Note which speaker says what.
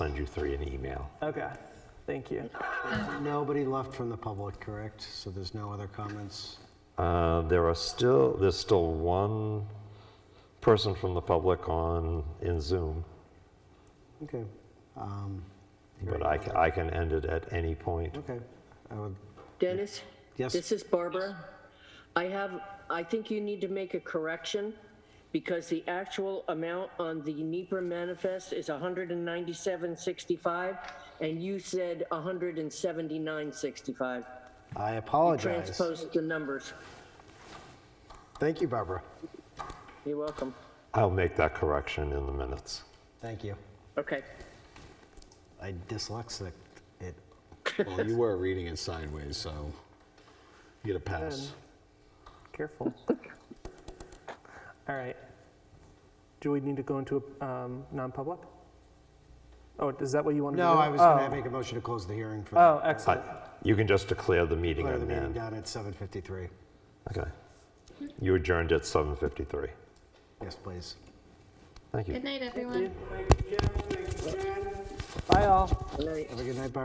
Speaker 1: send you three an email.
Speaker 2: Okay, thank you.
Speaker 3: Nobody left from the public, correct? So there's no other comments?
Speaker 1: Uh, There are still, there's still one person from the public on, in Zoom,
Speaker 3: Okay. Um,
Speaker 1: but I can, I can end it at any point.
Speaker 3: Okay. I would,
Speaker 4: Dennis?
Speaker 3: Yes.
Speaker 4: This is Barbara. I have, I think you need to make a correction because the actual amount on the NEPR manifest is 197.65 and you said 179.65.
Speaker 3: I apologize.
Speaker 4: Transpose the numbers.
Speaker 3: Thank you, Barbara.
Speaker 4: You're welcome.
Speaker 1: I'll make that correction in the minutes.
Speaker 3: Thank you.
Speaker 4: Okay.
Speaker 3: I dyslexic it.
Speaker 5: Well, you were reading it sideways, so you get a pass.
Speaker 2: Careful. All right. Do we need to go into a um, non-public? Oh, is that what you want to do?
Speaker 3: No, I was going
Speaker 4: Oh.
Speaker 3: to make a motion to close the hearing for
Speaker 2: Oh,
Speaker 3: the
Speaker 1: I-
Speaker 2: excellent.
Speaker 1: You can just declare the meeting
Speaker 3: declare the
Speaker 1: on end.
Speaker 3: meeting down at 7:53.
Speaker 1: Okay. You adjourned at 7:53.
Speaker 3: Yes, please.
Speaker 1: Thank you.
Speaker 6: Good night, everyone.
Speaker 2: Bye, all.
Speaker 4: All right.
Speaker 3: Have a good night, Barbara.